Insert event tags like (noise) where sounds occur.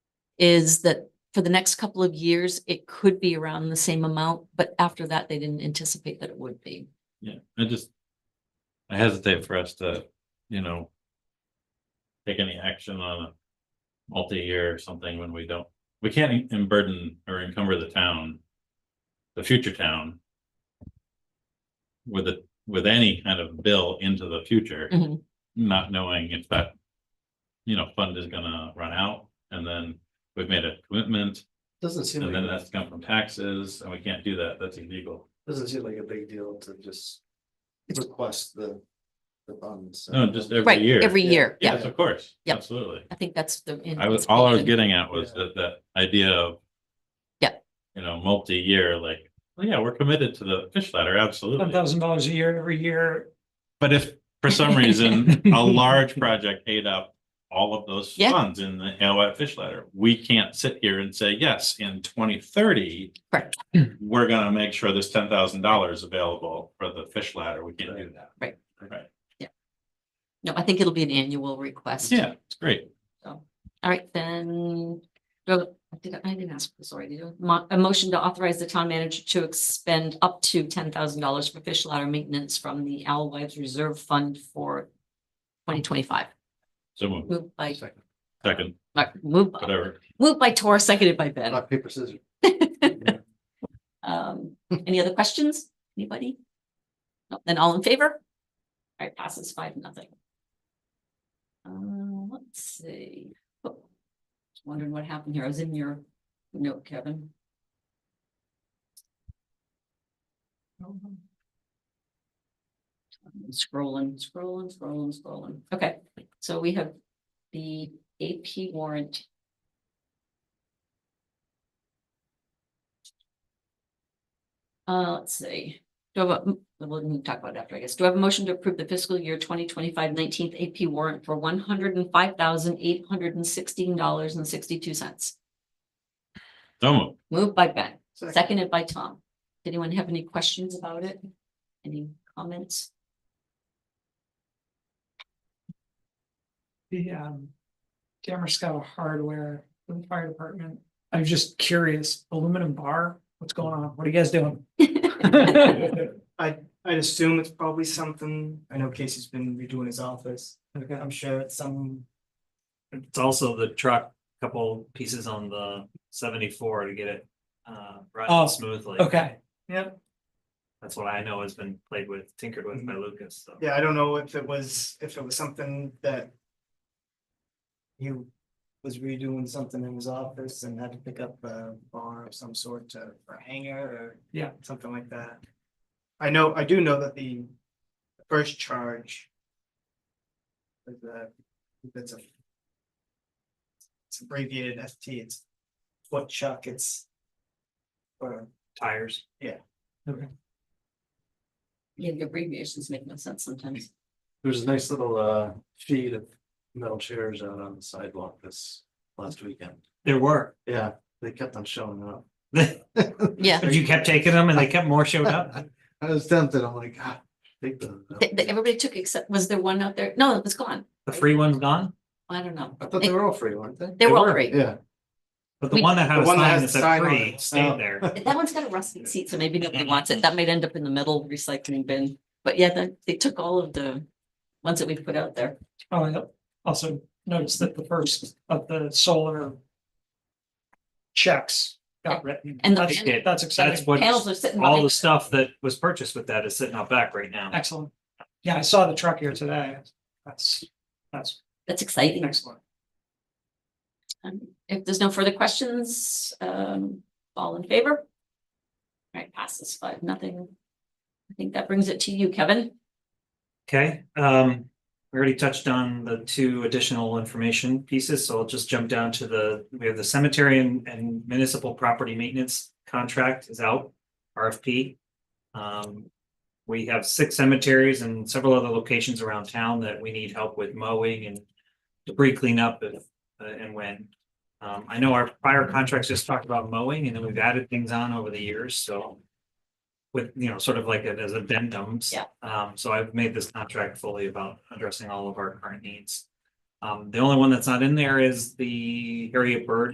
is that for the next couple of years, it could be around the same amount, but after that, they didn't anticipate that it would be. Yeah, I just. I hesitate for us to, you know. Take any action on a multi-year or something when we don't, we can't em- burden or encumber the town. The future town. With a, with any kind of bill into the future, Mhm. not knowing if that. You know, fund is gonna run out and then we've made a commitment Doesn't seem and like, then it that's come from taxes and we can't do that. That's illegal. doesn't seem like a big deal to just request the, the funds. No, just every Right, year. every yeah. year, yeah, Yes, of course. Yep. Absolutely. I think that's the. I was, all I was anticipation. getting at was that, that idea of. Yeah. You know, multi-year, like, well, yeah, we're committed to the fish ladder, One absolutely. thousand dollars a year every year. But if for some reason, (laughs) a large project ate up all of those Yeah. funds in the LWAT fish ladder, we can't sit here and say, yes, in twenty thirty. Correct. We're gonna make sure there's ten thousand dollars available for the fish ladder. We can't do that. Right. Right. No, I think it'll be an annual request. Yeah, it's great. All right, then, do- I didn't, I didn't ask for this already. do I? Mo- A motion to authorize the town manager to expend up to ten thousand dollars for fish ladder maintenance from the Owl Wives Reserve Fund for twenty twenty-five. So move, Moved by, Second. second, Mar- moved, by- whatever. moved by Tor, seconded by Ben. Rock, paper, scissors. Um, any other questions? Anybody? No, Then all in favor? All right, passes five, nothing. Um, let's see. Oh, Just Wondering what happened here. I was in your note, Kevin. Um, Scrolling, scrolling, scrolling, scrolling. Okay, so we have the AP warrant. Uh, let's see. Do I have a, we'll we can talk about it after, I guess. Do I have a motion to approve the fiscal year 2025-19th AP warrant for one hundred and five thousand eight hundred and sixteen dollars and sixty-two cents? So move. Moved by Ben, seconded by Tom. Did Anyone have any questions about it? Any comments? The um. Damerscott hardware for the fire department. I'm just curious, aluminum bar, what's going on? What are you guys doing? (laughs) Okay. I, I'd assume it's probably something, I know Casey's been redoing his office, I'm sure it's some, It's also the truck, couple pieces on the seventy-four to get it uh Oh, running smoothly. Okay, Yep. That's what I know has been played with, tinkered with Mm-hmm. by Lucas, so. yeah, I don't know if it was, if it was something that. He was redoing something in his office and had to pick up a bar of some sort to, or hanger or. Yeah. Something like that. I know, I do know that the first charge. Is a, it's a. It's abbreviated FT, it's foot chuck, it's. Or Tires. Yeah, the abbreviations make no sense sometimes. There's a nice little, uh, feed of metal chairs out on the sidewalk this last weekend. There were. Yeah, they kept on showing up. You (laughs) (laughs) Yeah, kept taking them and they kept more showed up. I was tempted, I'm like, God, take them. Th- th- everybody took except, was there one out there? No, it's gone. The free one's gone, I don't know. I thought they were all free, weren't they? They were all free. Yeah, but the We- one that The had a one that sign has that the sign said on free it. Oh. stayed there. That one's got a rusted seat, so maybe nobody wants it. That might end up in the metal recycling bin. But yeah, they, they took all of the ones that we put out there. oh, I also (laughs) noticed that the first of the solar. Checks got written. And the- That's that's That's exciting. what, Panels are sitting all the behind. stuff that was purchased with that is sitting out back right now. Excellent. Yeah, I saw the truck here today. That's, that's That's exciting. excellent. Um, If there's no further questions, um, all in favor? All right, passes five, nothing. I think that brings it to you, Kevin. Okay, um, we already touched on the two additional information pieces, so I'll just jump down to the, we have the cemetery and, and municipal property maintenance contract is out, RFP. Um, we have six cemeteries and several other locations around town that we need help with mowing and debris cleanup if, uh, and when. Um, I know our prior contracts just talked about mowing and then we've added things on over the years, so with, you know, sort of like it as addendums. Yeah. Um, so I've made this contract fully about addressing all of our current needs. Um, the only one that's not in there is the area bird